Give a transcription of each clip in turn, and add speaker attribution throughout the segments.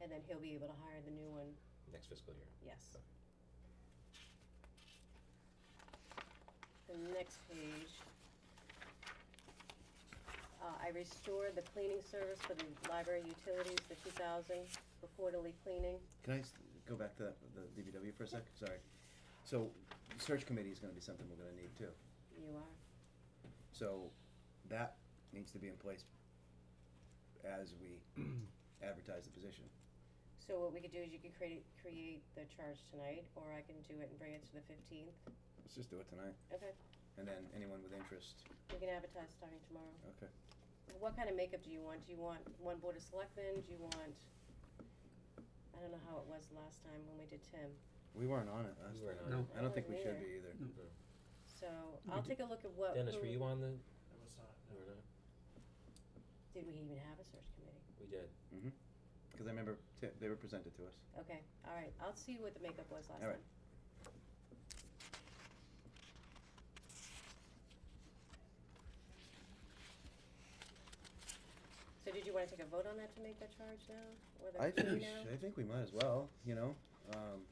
Speaker 1: and then he'll be able to hire the new one,
Speaker 2: next fiscal year.
Speaker 1: yes. The next page. Uh, I restored the cleaning service for the library utilities, the two thousand, for quarterly cleaning.
Speaker 3: Can I s- go back to that, the DBW for a sec? Sorry. So, search committee is gonna be something we're gonna need too.
Speaker 1: You are,
Speaker 3: So, that needs to be in place as we advertise the position.
Speaker 1: so what we could do is you could create, create the charge tonight, or I can do it and bring it to the fifteenth,
Speaker 3: Let's just do it tonight,
Speaker 1: okay,
Speaker 3: and then anyone with interest,
Speaker 1: we can advertise starting tomorrow.
Speaker 3: okay.
Speaker 1: What kind of makeup do you want? Do you want one board of selectmen? Do you want, I don't know how it was last time when we did Tim.
Speaker 3: We weren't on it last
Speaker 2: We weren't on
Speaker 3: time.
Speaker 2: No.
Speaker 3: I don't think we should
Speaker 1: Neither.
Speaker 3: be either.
Speaker 1: So I'll
Speaker 4: We
Speaker 1: take a look at what.
Speaker 2: Dennis,
Speaker 1: who-
Speaker 2: were you on the,
Speaker 4: I was not,
Speaker 2: you
Speaker 4: no.
Speaker 2: were not?
Speaker 1: Did we even have a search committee?
Speaker 2: We did.
Speaker 3: Mm-hmm. Cause I remember t- they were presented to us.
Speaker 1: Okay, all right. I'll see what the makeup was last
Speaker 3: All right.
Speaker 1: time. So did you wanna take a vote on that to make that charge now? Or the
Speaker 3: I think,
Speaker 1: fee
Speaker 3: we
Speaker 1: now?
Speaker 3: should- I think we might as well, you know, um,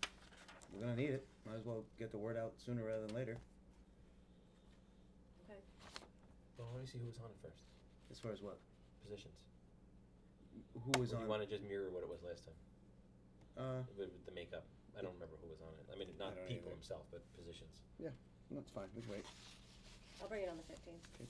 Speaker 3: we're gonna need it, might as well get the word out sooner rather than later,
Speaker 1: Okay,
Speaker 2: Well, let me see who was on it first,
Speaker 3: as far as what,
Speaker 2: positions.
Speaker 3: who was
Speaker 2: Or do
Speaker 3: on,
Speaker 2: you wanna just mirror what it was last time,
Speaker 3: uh,
Speaker 2: with, with the makeup? I don't remember who was on it. I mean, not
Speaker 3: don't
Speaker 2: people
Speaker 3: either.
Speaker 2: himself, but positions.
Speaker 3: that's fine, we can wait.
Speaker 1: I'll bring it on the fifteenth.
Speaker 3: Okay.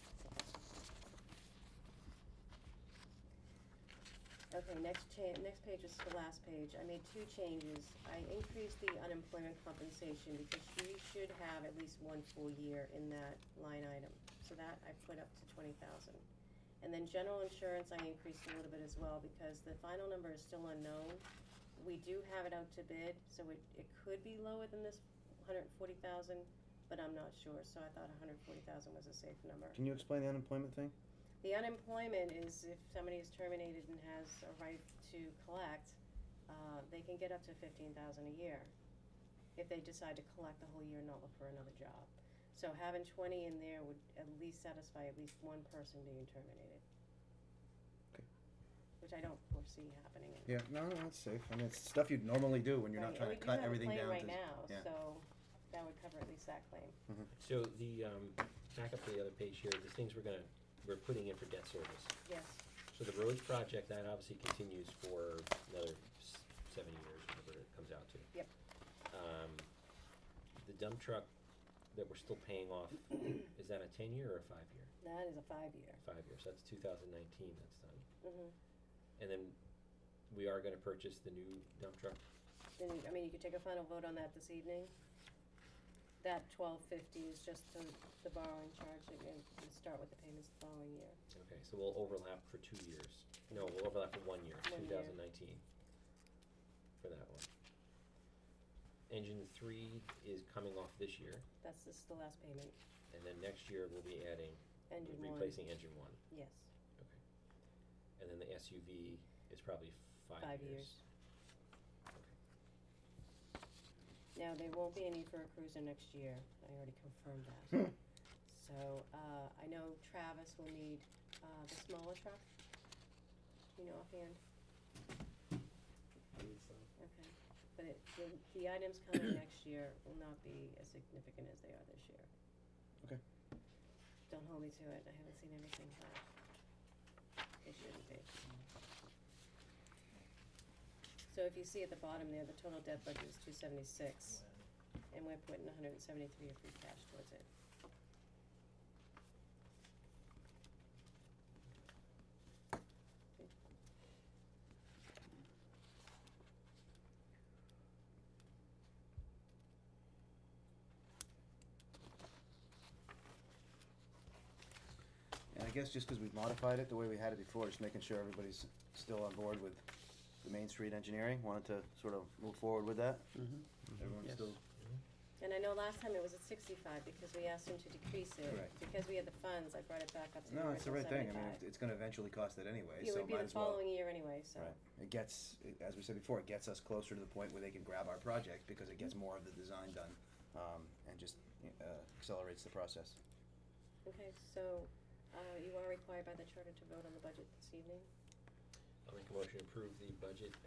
Speaker 1: Okay, next cha- next page is the last page. I made two changes. I increased the unemployment compensation because she should have at least one full year in that line item. So that I put up to twenty thousand. And then general insurance, I increased a little bit as well because the final number is still unknown. We do have it out to bid, so it, it could be lower than this hundred and forty thousand, but I'm not sure, so I thought hundred and forty thousand was a safe number.
Speaker 3: Can you explain the unemployment thing?
Speaker 1: The unemployment is if somebody is terminated and has a right to collect, uh, they can get up to fifteen thousand a year if they decide to collect the whole year and not look for another job. So having twenty in there would at least satisfy at least one person being terminated.
Speaker 3: Okay.
Speaker 1: Which I don't foresee happening.
Speaker 3: Yeah, no, no, it's safe, I mean, it's stuff you'd normally do when you're not
Speaker 1: Right,
Speaker 3: trying to cut everything down to.
Speaker 1: And we do have a claim
Speaker 3: yeah.
Speaker 1: right now, so that would cover at least that claim.
Speaker 2: So the, um, back up to the other page here, the things we're gonna, we're putting in for debt service.
Speaker 1: Yes,
Speaker 2: So the roads project, that obviously continues for another s- seven years, whatever it comes out to.
Speaker 1: Yep.
Speaker 2: Um, the dump truck that we're still paying off, is that a ten year or a five year?
Speaker 1: that is a five-year.
Speaker 2: Five years, that's two thousand nineteen, that's done.
Speaker 1: Mm-hmm.
Speaker 2: And then we are gonna purchase the new dump truck,
Speaker 1: Then, I mean, you could take a final vote on that this evening. That twelve fifty is just the, the borrowing charge, and then we start with the payments the following year.
Speaker 2: okay, so we'll overlap for two years, no, we'll overlap for one year,
Speaker 1: One
Speaker 2: two
Speaker 1: year.
Speaker 2: thousand nineteen. For that one. Engine three is coming off this year,
Speaker 1: That's just the last payment,
Speaker 2: and then next year we'll be adding
Speaker 1: engine one,
Speaker 2: replacing engine one,
Speaker 1: yes.
Speaker 2: and then the SUV is probably five years.
Speaker 1: Five years. Now, there won't be any for a cruiser next year, I already confirmed that. So, uh, I know Travis will need, uh, the smaller truck. Do you know offhand? Okay, but it, the, the items coming next year will not be as significant as they are this year.
Speaker 3: Okay.
Speaker 1: Don't hold me to it, I haven't seen everything, but it shouldn't be. So if you see at the bottom there, the total debt budget is two seventy-six, and we're putting hundred and seventy-three of free cash towards it.
Speaker 3: And I guess just because we've modified it the way we had it before, just making sure everybody's still on board with the Main Street engineering, wanted to sort of move forward with that? Everyone's
Speaker 4: Yes.
Speaker 3: still,
Speaker 2: Mm-hmm.
Speaker 1: And I know last time it was at sixty-five, because we asked him to decrease it,
Speaker 3: Correct.
Speaker 1: because we had the funds, I brought it back up to the
Speaker 3: no, it's the
Speaker 1: original
Speaker 3: right thing, I mean,
Speaker 1: $75.
Speaker 3: it- it's gonna eventually cost that anyway,
Speaker 1: It
Speaker 3: so
Speaker 1: would be
Speaker 3: might
Speaker 1: the
Speaker 3: as well.
Speaker 1: following year anyway, so.
Speaker 3: Right, it gets, it- as we said before, it gets us closer to the point where they can grab our project, because it gets more of the design done, um, and just, uh, accelerates the process.
Speaker 1: Okay, so, uh, you are required by the charter to vote on the budget this evening?
Speaker 2: I'll make a motion to approve the budget